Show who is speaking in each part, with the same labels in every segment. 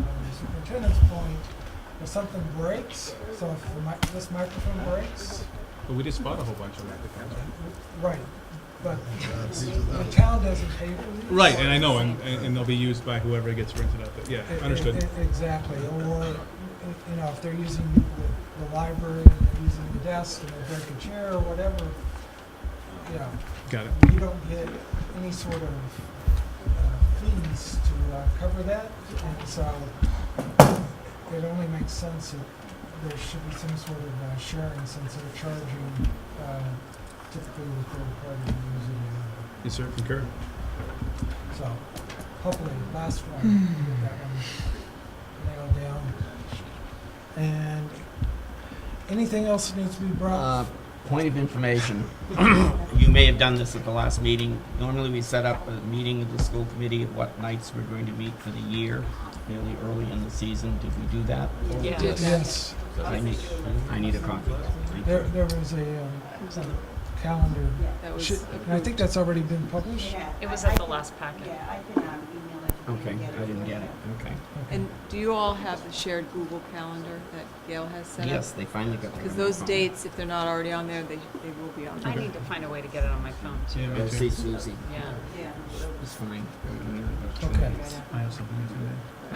Speaker 1: maintenance um, point, if something breaks, so if the mic- this microphone breaks,
Speaker 2: But we just bought a whole bunch of microphones.
Speaker 1: right, but the town doesn't pay for these.
Speaker 2: Right, and I know, and, and and they'll be used by whoever gets rented out, but yeah,
Speaker 1: E- e-
Speaker 2: understood.
Speaker 1: e- Exactly, or, you know, if they're using the, the library, and they're using the desk, and they break a chair or whatever, you know,
Speaker 2: Got it.
Speaker 1: you don't get any sort of uh, fees to uh, cover that, and so it only makes sense that there should be some sort of uh, sharing since they're charging uh, typically the third party user.
Speaker 2: Yes, sir, concur.
Speaker 1: So hopefully, last one, get that one nailed down. And anything else that needs to be brought?
Speaker 3: Uh, Point of information. You may have done this at the last meeting. Normally, we set up a meeting of the school committee of what nights we're going to meet for the year, fairly early in the season. Did we do that?
Speaker 1: Yes,
Speaker 3: I need, I need a copy. Thank you.
Speaker 1: there, there was a um, calendar.
Speaker 4: That was
Speaker 1: Should- and I think that's already been published.
Speaker 5: It was at the last packet.
Speaker 6: Yeah, I can um, email it. to you
Speaker 3: Okay,
Speaker 6: and
Speaker 3: I didn't get it. Okay.
Speaker 4: And do you all have the shared Google Calendar that Gail has set up?
Speaker 3: Yes, they finally got the.
Speaker 4: Because those
Speaker 3: phone.
Speaker 4: dates, if they're not already on there, they, they will be on
Speaker 5: I
Speaker 4: there.
Speaker 5: need to find a way to get it on my phone too.
Speaker 2: Yeah,
Speaker 3: Oh,
Speaker 2: me
Speaker 3: see
Speaker 2: too.
Speaker 3: Susie.
Speaker 5: Yeah.
Speaker 6: Yeah.
Speaker 3: It's fine.
Speaker 1: Okay.
Speaker 2: I have something to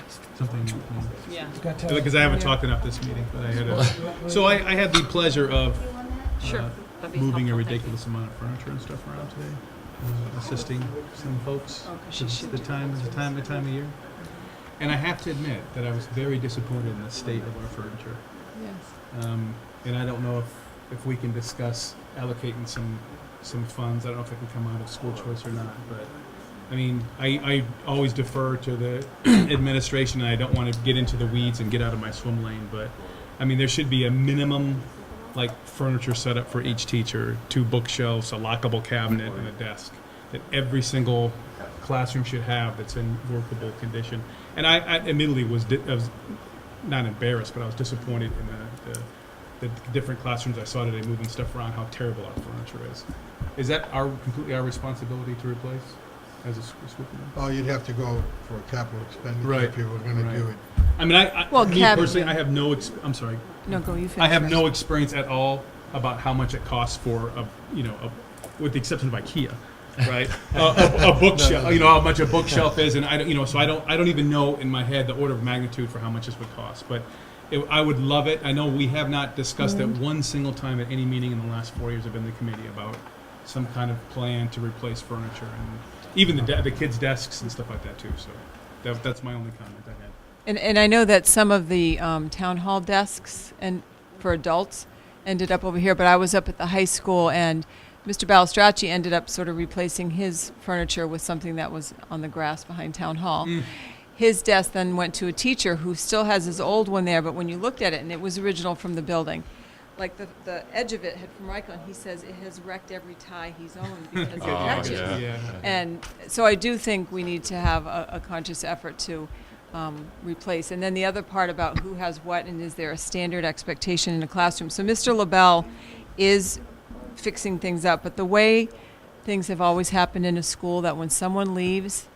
Speaker 2: say. Something. to-
Speaker 5: Yeah.
Speaker 1: Got to-
Speaker 2: Because I haven't talked enough this meeting, but I had a, so I, I had the pleasure of
Speaker 6: You want that?
Speaker 5: Sure.
Speaker 2: uh,
Speaker 5: That'd be
Speaker 2: moving a
Speaker 5: helpful, thank you.
Speaker 2: ridiculous amount of furniture and stuff around today, uh, assisting some folks.
Speaker 4: Oh, 'cause she
Speaker 2: It's
Speaker 4: should
Speaker 2: the
Speaker 4: do
Speaker 2: time,
Speaker 4: that.
Speaker 2: the time, the time of year. And I have to admit that I was very disappointed in the state of our furniture.
Speaker 4: Yes.
Speaker 2: Um, and I don't know if, if we can discuss allocating some, some funds. I don't know if it can come out of school choice or not, but, I mean, I, I always defer to the administration, and I don't want to get into the weeds and get out of my swim lane, but, I mean, there should be a minimum, like, furniture setup for each teacher, two bookshelves, a lockable cabinet, and a desk, that every single classroom should have that's in workable condition. And I, I admittedly was, di- I was not embarrassed, but I was disappointed in the, the, the different classrooms I saw today moving stuff around, how terrible our furniture is. Is that our, completely our responsibility to replace as a school, school committee?
Speaker 7: Oh, you'd have to go for a capital expenditure
Speaker 2: Right,
Speaker 7: if you were gonna do
Speaker 2: right.
Speaker 7: it.
Speaker 2: I mean, I, I
Speaker 4: Well,
Speaker 2: me
Speaker 4: cab-
Speaker 2: personally, I have no, ex- I'm sorry,
Speaker 4: No, go, you finish.
Speaker 2: I have
Speaker 4: first.
Speaker 2: no experience at all about how much it costs for a, you know, a, with the exception of IKEA, right? a, a, a bookshelf, you know, how much a bookshelf is, and I don't, you know, so I don't, I don't even know in my head the order of magnitude for how much this would cost, but it, I would love it. I know we have not discussed it one single time at any meeting in the last four years I've been in the committee about some kind of plan to replace furniture and even the, de- the kids' desks and stuff like that too. So that, that's my only comment I had.
Speaker 4: And, and I know that some of the um, town hall desks and for adults ended up over here, but I was up at the high school and Mr. Balistracci ended up sort of replacing his furniture with something that was on the grass behind town hall. His desk then went to a teacher who still has his old one there, but when you looked at it, and it was original from the building, like the, the edge of it had from Rycon, he says it has wrecked every tie he's owned because of
Speaker 8: Oh,
Speaker 4: patches.
Speaker 8: yeah.
Speaker 4: And so I do think we need to have a, a conscious effort to um, replace. And then the other part about who has what and is there a standard expectation in a classroom. So Mr. LaBelle is fixing things up, but the way things have always happened in a school that when someone leaves,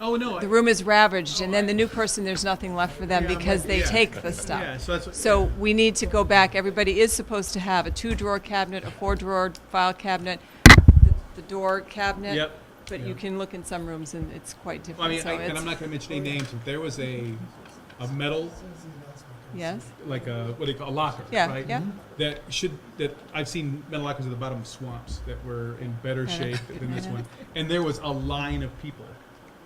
Speaker 2: Oh, no. I-
Speaker 4: the room is ravaged, and then the new person, there's nothing left for them
Speaker 2: Yeah, I'm
Speaker 4: because
Speaker 2: like-
Speaker 4: they
Speaker 2: yeah.
Speaker 4: take the stuff.
Speaker 2: Yeah, so that's.
Speaker 4: So we need to go back. Everybody is supposed to have a two drawer cabinet, a four drawer file cabinet, the, the door cabinet.
Speaker 2: Yep.
Speaker 4: But
Speaker 2: Yeah.
Speaker 4: you can look in some rooms and it's quite
Speaker 2: Well, I
Speaker 4: different.
Speaker 2: mean,
Speaker 4: so
Speaker 2: I, and
Speaker 4: it's-
Speaker 2: I'm not going to mention any names, but there was a a metal,
Speaker 4: Yes?
Speaker 2: like a what do you call a locker,
Speaker 4: Yeah,
Speaker 2: right?
Speaker 4: yeah.
Speaker 2: That should that I've seen metal lockers at the bottom of swamps that were in better shape than this one, and there was a line of people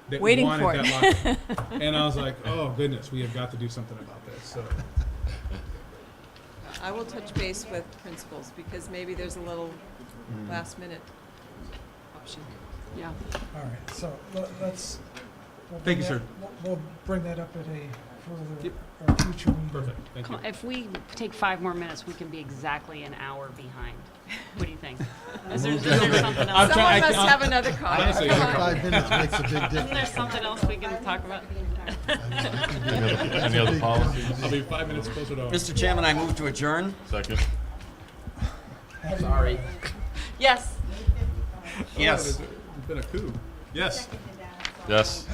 Speaker 2: that
Speaker 4: Waiting
Speaker 2: wanted
Speaker 4: for it.
Speaker 2: that locker, and I was like, oh goodness, we have got to do something about this. So Mm-hmm.
Speaker 4: I will touch base with principals because maybe there's a little
Speaker 2: Mm.
Speaker 4: last minute option.
Speaker 5: Yeah.
Speaker 1: All right, so le- let's. we'll
Speaker 2: Thank you,
Speaker 1: bring
Speaker 2: sir.
Speaker 1: that- we'll- We'll bring that up at a further,
Speaker 2: Yep.
Speaker 1: or future meeting.
Speaker 2: perfect, thank you.
Speaker 5: Come on, If we take five more minutes, we can be exactly an hour behind. What do you think? Is there, is there something
Speaker 2: I'm
Speaker 5: else?
Speaker 2: try-
Speaker 4: Someone
Speaker 2: I-
Speaker 4: must
Speaker 2: I-
Speaker 4: have another comment.
Speaker 2: Honestly,
Speaker 4: Come
Speaker 2: I-
Speaker 4: on.
Speaker 7: Five minutes makes a big
Speaker 5: Isn't there
Speaker 7: difference.
Speaker 5: something else we can talk about?
Speaker 8: Any other- any other policies?
Speaker 2: I'll be five minutes closer to Oh, home.
Speaker 3: Mr. Chairman, I move to adjourn.
Speaker 8: Second.
Speaker 3: Sorry.
Speaker 4: Yes.
Speaker 2: Oh,
Speaker 3: Yes.
Speaker 2: there's a- It's been a coup. Yes.
Speaker 8: Yes.